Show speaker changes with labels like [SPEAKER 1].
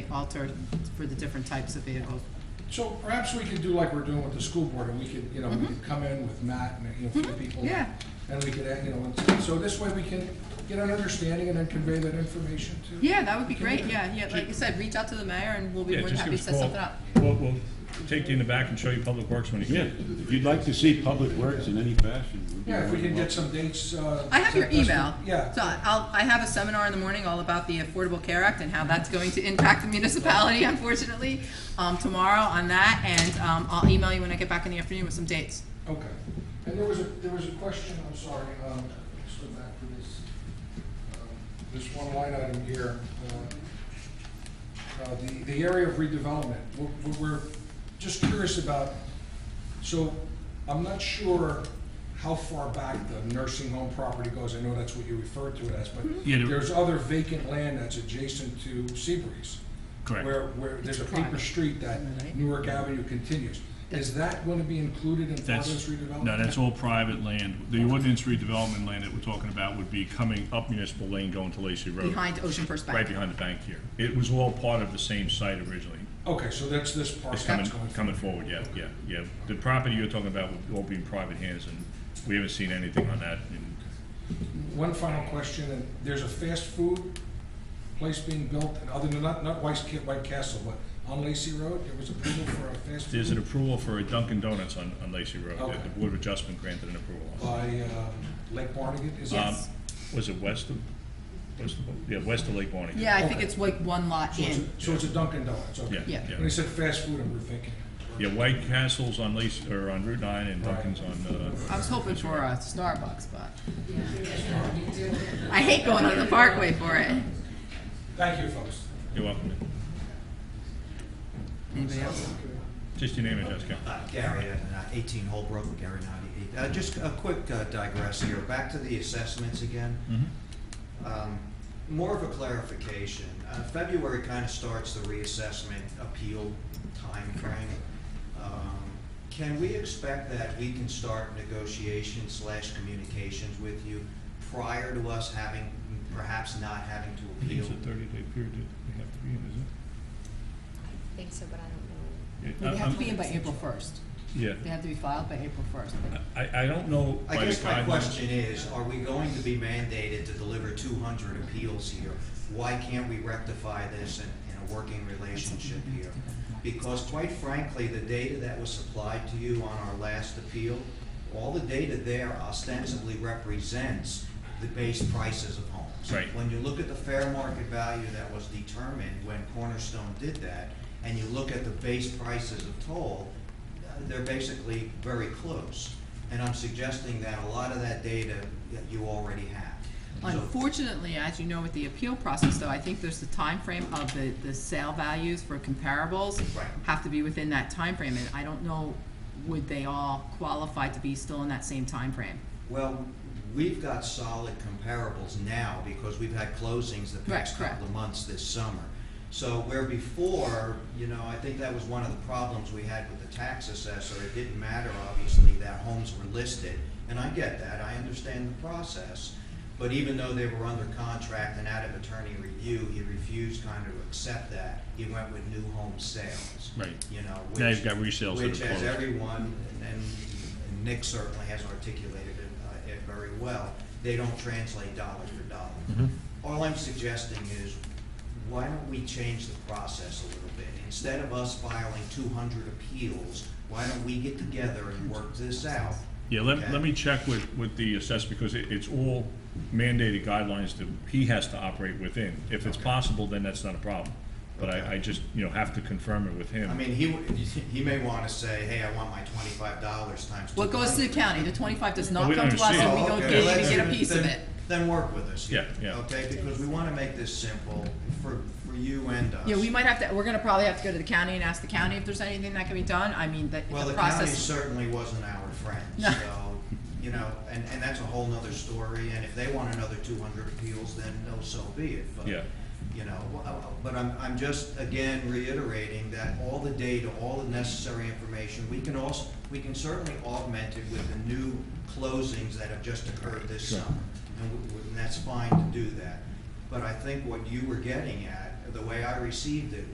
[SPEAKER 1] altered for the different types of vehicles.
[SPEAKER 2] So perhaps we could do like we're doing with the school board, and we could, you know, we could come in with Matt and, you know, a few people.
[SPEAKER 1] Mm-hmm. yeah.
[SPEAKER 2] And we could, uh, you know, and so this way we can get an understanding and then convey that information to.
[SPEAKER 1] Yeah, that would be great, yeah, yeah, like you said, reach out to the mayor and we'll be
[SPEAKER 3] Yeah,
[SPEAKER 1] more than
[SPEAKER 3] just give
[SPEAKER 1] happy to
[SPEAKER 3] us a
[SPEAKER 1] set
[SPEAKER 3] call.
[SPEAKER 1] something up.
[SPEAKER 3] We'll, we'll take you in the back and show you Public Works when you
[SPEAKER 4] Yeah,
[SPEAKER 3] get.
[SPEAKER 4] if you'd like to see Public Works in any fashion. we'd be
[SPEAKER 2] Yeah, if we can
[SPEAKER 4] more
[SPEAKER 2] get some dates, uh.
[SPEAKER 1] I have your
[SPEAKER 2] that's-
[SPEAKER 1] email.
[SPEAKER 2] Yeah.
[SPEAKER 1] So I'll, I have a seminar in the morning all about the Affordable Care Act and how that's going to impact the municipality, unfortunately, um, tomorrow on that, and, um, I'll email you when I get back in the afternoon with some dates.
[SPEAKER 2] Okay. And there was a, there was a question, I'm sorry, um, let's go back to this, um, this one line item here. uh, uh, The, the area of redevelopment, We're- we're, we're just curious about, so I'm not sure how far back the nursing home property goes. I know that's what you referred to it as, but
[SPEAKER 3] Yeah, there-
[SPEAKER 2] there's other vacant land that's adjacent to Seabreeze.
[SPEAKER 3] Correct.
[SPEAKER 2] Where, where there's a
[SPEAKER 1] It's
[SPEAKER 2] paper
[SPEAKER 1] private.
[SPEAKER 2] street that
[SPEAKER 1] Right.
[SPEAKER 2] Newark Avenue continues. Is that going to be included in part of this
[SPEAKER 3] That's,
[SPEAKER 2] redevelopment?
[SPEAKER 3] no, that's all private land. The ordinance redevelopment land that we're talking about would be coming up Municipal Lane going to Lacey Road.
[SPEAKER 1] Behind Ocean First Bank.
[SPEAKER 3] Right behind the bank here. It was all part of the same site originally.
[SPEAKER 2] Okay, so that's this part
[SPEAKER 3] It's
[SPEAKER 2] that's
[SPEAKER 3] coming,
[SPEAKER 2] going.
[SPEAKER 3] coming forward, yeah, yeah, yeah. The property you're talking about would all be in private hands, and we haven't seen anything on that. in-
[SPEAKER 2] One final question, and there's a fast food place being built, and other than, not, not White Ca- White Castle, but on Lacey Road, there was approval for a fast
[SPEAKER 3] There's
[SPEAKER 2] food
[SPEAKER 3] an approval for a Dunkin' Donuts on, on Lacey Road. that
[SPEAKER 2] Okay.
[SPEAKER 3] The Board of Adjustment granted an approval on.
[SPEAKER 2] by um, Lake Barnegat, is
[SPEAKER 3] Um,
[SPEAKER 2] it?
[SPEAKER 1] Yes.
[SPEAKER 3] Was it west of, west of, yeah, west of Lake Bonny?
[SPEAKER 1] Yeah, I think
[SPEAKER 2] Okay.
[SPEAKER 1] it's like one lot
[SPEAKER 2] So it's
[SPEAKER 1] in.
[SPEAKER 2] a- So it's a Dunkin' Donuts, okay.
[SPEAKER 3] Yeah,
[SPEAKER 1] Yeah.
[SPEAKER 3] yeah.
[SPEAKER 2] When they said fast food, I'm rethinking.
[SPEAKER 3] Yeah, White Castle's on Lace, or on Route nine and Dunkin's on, uh,
[SPEAKER 1] I was hoping for a Starbucks, but. I hate going on the Parkway for it.
[SPEAKER 2] Thank you, folks.
[SPEAKER 3] uh, you're welcome.
[SPEAKER 1] Anybody else?
[SPEAKER 3] Just your name and address, Ken.
[SPEAKER 5] Uh, Gary, uh, 18 Holbrook, Gary 98. Uh, Just a quick uh, digress here, back to the assessments again.
[SPEAKER 3] Mm-hmm.
[SPEAKER 5] Um, More of a clarification. Uh, February kind of starts the reassessment appeal timeframe. Um, Can we expect that we can start negotiations slash communications with you prior to us having, perhaps not having to
[SPEAKER 3] I think
[SPEAKER 5] appeal?
[SPEAKER 3] It's a thirty-day period that they have to be in, is
[SPEAKER 6] I think so, but I don't know.
[SPEAKER 3] it?
[SPEAKER 1] They
[SPEAKER 3] Yeah,
[SPEAKER 1] have
[SPEAKER 3] I'm-
[SPEAKER 1] to be in by April first.
[SPEAKER 3] Yeah,
[SPEAKER 1] They have to be filed by April first.
[SPEAKER 3] I, I don't know by the
[SPEAKER 5] I guess my
[SPEAKER 3] guidelines.
[SPEAKER 5] question is, are we going to be mandated to deliver two hundred appeals here? Why can't we rectify this in, in a working relationship here? Because quite frankly, the data that was supplied to you on our last appeal, all the data there ostensibly represents the base prices of homes.
[SPEAKER 3] Right.
[SPEAKER 5] When you look at the fair market value that was determined when Cornerstone did that, and you look at the base prices of toll, uh, they're basically very close. And I'm suggesting that a lot of that data that you already have. So-
[SPEAKER 1] Unfortunately, as you know, with the appeal process, though, I think there's the time frame of the, the sale values for comparables
[SPEAKER 5] Right.
[SPEAKER 1] have to be within that time frame, and I don't know, would they all qualify to be still in that same time frame?
[SPEAKER 5] Well, we've got solid comparables now because we've had closings the past
[SPEAKER 1] Right, correct.
[SPEAKER 5] couple of months this summer. So where before, you know, I think that was one of the problems we had with the tax assessor. It didn't matter, obviously, that homes were listed, and I get that, I understand the process. But even though they were under contract and out of attorney review, he refused kind of to accept that. He went with new home sales.
[SPEAKER 3] Right.
[SPEAKER 5] You know, which.
[SPEAKER 3] Now you've got resales that are
[SPEAKER 5] Which as
[SPEAKER 3] closed.
[SPEAKER 5] everyone, and and Nick certainly has articulated it, uh, it very well, they don't translate dollar for
[SPEAKER 3] Mm-hmm.
[SPEAKER 5] dollar. All I'm suggesting is, why don't we change the process a little bit? Instead of us filing two hundred appeals, why don't we get together and work this out?
[SPEAKER 3] Yeah, let,
[SPEAKER 5] Okay.
[SPEAKER 3] let me check with, with the assessor, because it, it's all mandated guidelines that he has to operate within. If it's possible, then that's not a problem, but I,
[SPEAKER 5] Okay.
[SPEAKER 3] I just, you know, have to confirm it with him.
[SPEAKER 5] I mean, he, w- he may wanna say, hey, I want my twenty-five dollars times two
[SPEAKER 1] What
[SPEAKER 5] hundred.
[SPEAKER 1] goes to the county, the twenty-five does
[SPEAKER 3] Well,
[SPEAKER 1] not
[SPEAKER 3] we
[SPEAKER 1] come to us, and
[SPEAKER 3] understand.
[SPEAKER 1] we
[SPEAKER 5] Oh,
[SPEAKER 1] don't
[SPEAKER 5] okay.
[SPEAKER 1] get,
[SPEAKER 5] Well,
[SPEAKER 1] even
[SPEAKER 5] that's
[SPEAKER 1] get a
[SPEAKER 5] good.
[SPEAKER 1] piece of
[SPEAKER 5] Then-
[SPEAKER 1] it.
[SPEAKER 5] Then work with us. here,
[SPEAKER 3] Yeah, yeah.
[SPEAKER 5] Okay, because we wanna make this simple for, for you and us.
[SPEAKER 1] Yeah, we might have to, we're gonna probably have to go to the county and ask the county if there's anything that can be done, I mean, the,
[SPEAKER 5] Well,
[SPEAKER 1] the
[SPEAKER 5] the county
[SPEAKER 1] process.
[SPEAKER 5] certainly wasn't our friend,
[SPEAKER 1] No.
[SPEAKER 5] so, you know, and, and that's a whole nother story, and if they want another two hundred appeals, then no, so be it, but,
[SPEAKER 3] Yeah.
[SPEAKER 5] you know, wh- uh, but I'm, I'm just, again, reiterating that all the data, all the necessary information, we can also, we can certainly augment it with the new closings that have just occurred this
[SPEAKER 3] Sure.
[SPEAKER 5] summer, and w- w- and that's fine to do that. But I think what you were getting at, the way I received it,